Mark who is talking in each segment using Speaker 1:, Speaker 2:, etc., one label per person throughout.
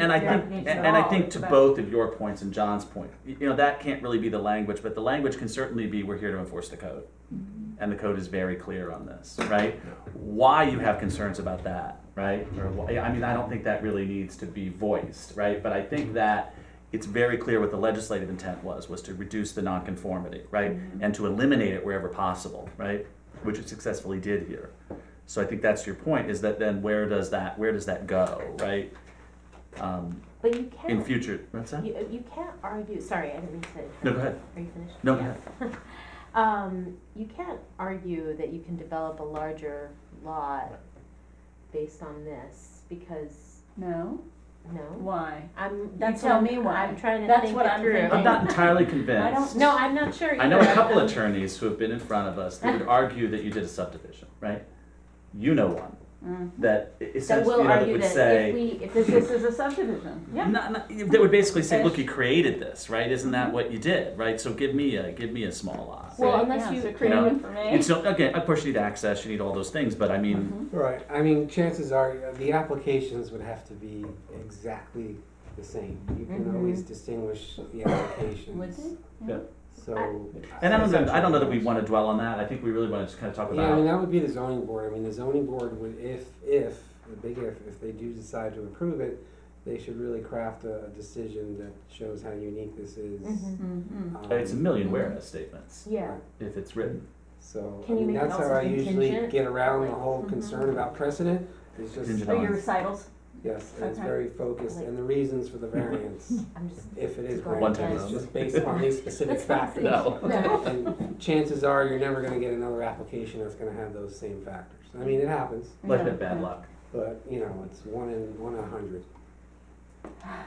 Speaker 1: And I
Speaker 2: Yeah.
Speaker 1: think,
Speaker 2: Yeah.
Speaker 1: and and I think to
Speaker 2: But-
Speaker 1: both of your points and John's point, y- you know, that can't really be the language, but the language can certainly be, we're here to enforce the code. And the code is very clear on this, right? Why you have concerns about that, right? Or, wh- yeah, I mean, I don't think that really needs to be voiced, right? But I think that it's very clear what the legislative intent was, was to reduce the nonconformity, right? And to eliminate it wherever possible, right? Which it successfully did here. So I think that's your point, is that then where does that, where does that go, right? Um,
Speaker 3: But you
Speaker 1: in
Speaker 3: can't,
Speaker 1: future. What's that?
Speaker 3: you, you can't argue, sorry, I didn't mean to.
Speaker 1: No, go ahead.
Speaker 3: Are you finished?
Speaker 1: No, go
Speaker 3: Yeah. Um, you can't argue that you can develop a larger lot based on this, because,
Speaker 2: No,
Speaker 3: no?
Speaker 2: why?
Speaker 3: I'm, you
Speaker 2: That's
Speaker 3: tell
Speaker 2: what
Speaker 3: me
Speaker 2: I'm-
Speaker 3: why, I'm trying to
Speaker 2: that's
Speaker 3: think
Speaker 2: what
Speaker 3: it
Speaker 2: I'm
Speaker 3: through.
Speaker 2: thinking.
Speaker 1: I'm not entirely
Speaker 2: I don't-
Speaker 1: convinced.
Speaker 3: No, I'm not sure either.
Speaker 1: I know a couple attorneys who have been in front of us that would argue that you did a subdivision, right? You know one
Speaker 2: Mm.
Speaker 1: that i-
Speaker 3: That
Speaker 1: essentially,
Speaker 3: will
Speaker 1: you know, that
Speaker 3: argue
Speaker 1: would
Speaker 3: that if
Speaker 1: say,
Speaker 3: we, if
Speaker 2: This,
Speaker 3: this
Speaker 2: this
Speaker 3: is,
Speaker 2: is a subdivision. Yeah.
Speaker 1: not, not, that would basically say, look,
Speaker 2: Ish.
Speaker 1: you created this, right? Isn't that what you did, right? So give me a, give me a small lot,
Speaker 3: well,
Speaker 1: right?
Speaker 3: unless
Speaker 2: Yeah.
Speaker 3: you,
Speaker 1: You know,
Speaker 2: for
Speaker 1: It's, no- again, of course you need access, you need all those things, but I mean,
Speaker 4: Right, I mean, chances are, uh, the applications would have to be exactly the same. You can
Speaker 3: Mm-hmm.
Speaker 4: always distinguish the
Speaker 2: Would
Speaker 4: applications,
Speaker 2: they?
Speaker 4: so. uh,
Speaker 1: and I don't know, I don't know that we wanna dwell on that. I think we really wanna just kinda talk
Speaker 4: Yeah, I mean,
Speaker 1: about,
Speaker 4: that would be the zoning board, I mean, the zoning board would, if, if, the big if, if they do decide to approve it, they should really craft a, a decision that shows how unique this is.
Speaker 3: Mhm.
Speaker 2: Mm-hmm.
Speaker 4: um,
Speaker 1: it's a million whereas statements,
Speaker 3: yeah,
Speaker 1: if it's written.
Speaker 4: So, I
Speaker 3: Can you
Speaker 4: mean,
Speaker 3: make it
Speaker 4: that's
Speaker 3: also
Speaker 4: how I usually
Speaker 3: contingent? Oh,
Speaker 4: get around the whole
Speaker 3: Mhm.
Speaker 4: concern about precedent, is just,
Speaker 1: Contingent.
Speaker 2: Are Oh, your recitals?
Speaker 4: yes, and it's
Speaker 2: Okay.
Speaker 4: very focused, and the reasons for the variance.
Speaker 3: I'm just,
Speaker 4: if it is
Speaker 3: Or
Speaker 1: one
Speaker 4: granted,
Speaker 1: time
Speaker 4: it's
Speaker 1: only.
Speaker 4: just based on these specific
Speaker 3: That's not
Speaker 4: factors.
Speaker 1: No.
Speaker 3: no,
Speaker 4: And chances are, you're never gonna get another application that's gonna have those same factors. I mean, it happens,
Speaker 1: Like that bad luck.
Speaker 4: but, you know, it's one in, one in a hundred.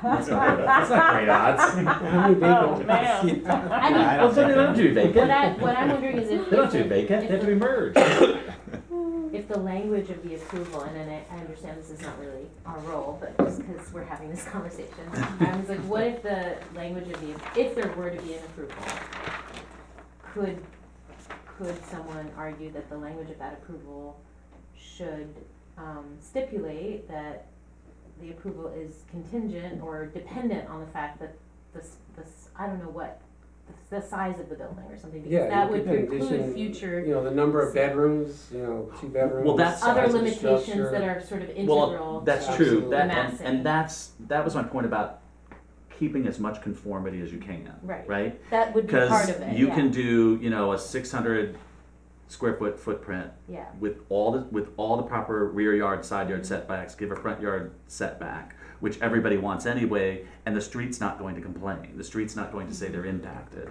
Speaker 1: That's not, that's not great uh, odds.
Speaker 4: How many
Speaker 2: Oh,
Speaker 4: vacant lots do you
Speaker 2: man.
Speaker 4: have?
Speaker 3: I mean,
Speaker 1: I don't think they don't do
Speaker 3: What
Speaker 1: vacant.
Speaker 3: I, what I'm wondering is if.
Speaker 1: They don't do vacant, they have to be merged. Right,
Speaker 3: if the language of the approval, and then I, I understand this is not really our role, but just because we're having this conversation, I was like, what if the language of the, if there were to be an approval, could, could someone argue that the language of that approval should, um, stipulate that the approval is contingent or dependent on the fact that this, this, I don't know what, the, the size of the building or something,
Speaker 4: Yeah,
Speaker 3: because that
Speaker 4: you
Speaker 3: would
Speaker 4: could
Speaker 3: preclude
Speaker 4: condition-
Speaker 3: future
Speaker 4: You know, the number of bedrooms, you know, two bedrooms.
Speaker 1: Well, that's-
Speaker 3: other
Speaker 4: size of
Speaker 3: limitations
Speaker 4: structure.
Speaker 3: that are sort of
Speaker 1: Well,
Speaker 3: integral.
Speaker 1: that's true,
Speaker 4: Absolutely.
Speaker 1: that, and,
Speaker 3: Massive.
Speaker 1: and that's, that was my point about keeping as much conformity as you can,
Speaker 3: Right.
Speaker 1: right?
Speaker 3: That would be part
Speaker 1: Because
Speaker 3: of it,
Speaker 1: you
Speaker 3: yeah.
Speaker 1: can do, you know, a six hundred square foot footprint
Speaker 3: Yeah,
Speaker 1: with all the, with all the proper rear yard, side yard setbacks, give a front yard setback, which everybody wants anyway, and the street's not going to complain, the street's not going to say they're impacted.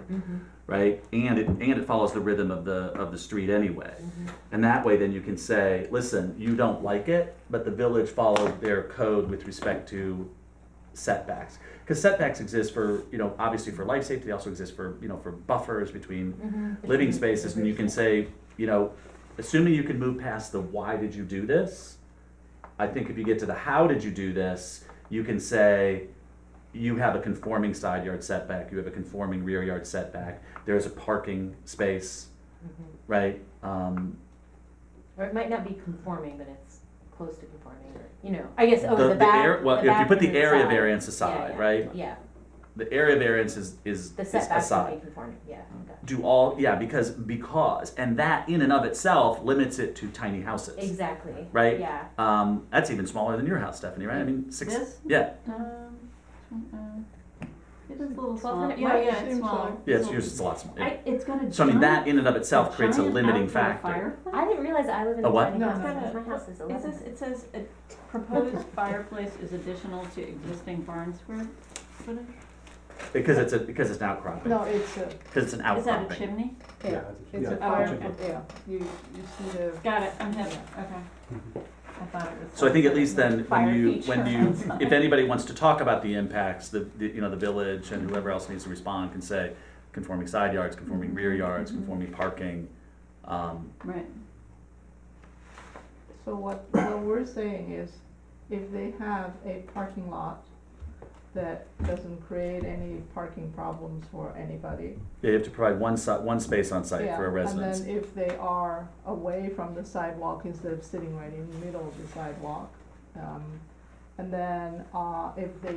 Speaker 1: right? And it and it follows the rhythm of the of the street anyway. And that way then you can say, listen, you don't like it, but the village followed their code with respect to setbacks. Because setbacks exist for, you know, obviously for life safety, they also exist for, you know, for buffers between
Speaker 3: Mm-hmm.
Speaker 1: living spaces. And you can say, you know, assuming you can move past the why did you do this, I think if you get to the how did you do this, you can say you have a conforming side yard setback, you have a conforming rear yard setback, there's a parking space, right? Um,
Speaker 3: Mm-hmm. or it might not be conforming, but it's close to conforming, or, you know, I guess, oh, the
Speaker 1: air-
Speaker 3: back,
Speaker 1: well,
Speaker 3: the
Speaker 1: if you
Speaker 3: back
Speaker 1: put the
Speaker 3: and
Speaker 1: area
Speaker 3: side.
Speaker 1: variance
Speaker 3: Yeah,
Speaker 1: aside,
Speaker 3: yeah,
Speaker 1: right?
Speaker 3: Yeah,
Speaker 1: The area variance is is,
Speaker 3: the
Speaker 1: is
Speaker 3: setbacks
Speaker 1: aside.
Speaker 3: would be conforming, yeah, got
Speaker 1: do all yeah because because and that in and of itself limits it to tiny houses
Speaker 3: it. exactly,
Speaker 1: right
Speaker 3: yeah,
Speaker 1: um, that's even smaller than your house stephanie right i mean six
Speaker 2: This?
Speaker 1: yeah
Speaker 2: Um, mm, uh, It is a little
Speaker 3: Well,
Speaker 2: smaller.
Speaker 3: it might seem
Speaker 1: yeah it's, yours it's a lot smaller yeah.
Speaker 2: I, it's gonna.
Speaker 1: so i mean that
Speaker 2: giant-
Speaker 1: in and of itself creates a
Speaker 2: giant
Speaker 1: limiting
Speaker 2: outdoor
Speaker 1: factor
Speaker 2: fireplace.
Speaker 3: I didn't realize I live in
Speaker 1: A
Speaker 3: a
Speaker 1: what?
Speaker 3: tiny
Speaker 5: No,
Speaker 3: house,
Speaker 5: no, no.
Speaker 3: my house is
Speaker 5: It
Speaker 3: eleven.
Speaker 5: says, it says, a proposed fireplace is additional to existing barn square footage?
Speaker 1: because it's a because it's an outcropping
Speaker 5: No, it's a,
Speaker 1: because it's an
Speaker 5: is that a
Speaker 1: outcropping
Speaker 5: chimney?
Speaker 4: Yeah,
Speaker 5: It's
Speaker 4: yeah.
Speaker 5: a fire,
Speaker 6: Yeah, you, you see the.
Speaker 5: got it, I'm having, okay. I thought it was.
Speaker 1: Mm-hmm. so i think at least then
Speaker 5: Fire
Speaker 1: when you
Speaker 5: feature.
Speaker 1: when you if anybody wants to talk about the impacts the, the you know the village and whoever else needs to respond can say conforming side yards conforming rear
Speaker 5: Mm-hmm.
Speaker 1: yards conforming parking um,
Speaker 2: Right.
Speaker 6: So what, what we're saying is, if they have a parking lot that doesn't create any parking problems for anybody.
Speaker 1: They have to provide one si- one space on site
Speaker 6: yeah,
Speaker 1: for a residence.
Speaker 6: And then if they are away from the sidewalk instead of sitting right in the middle of the sidewalk, um, And then, uh, if they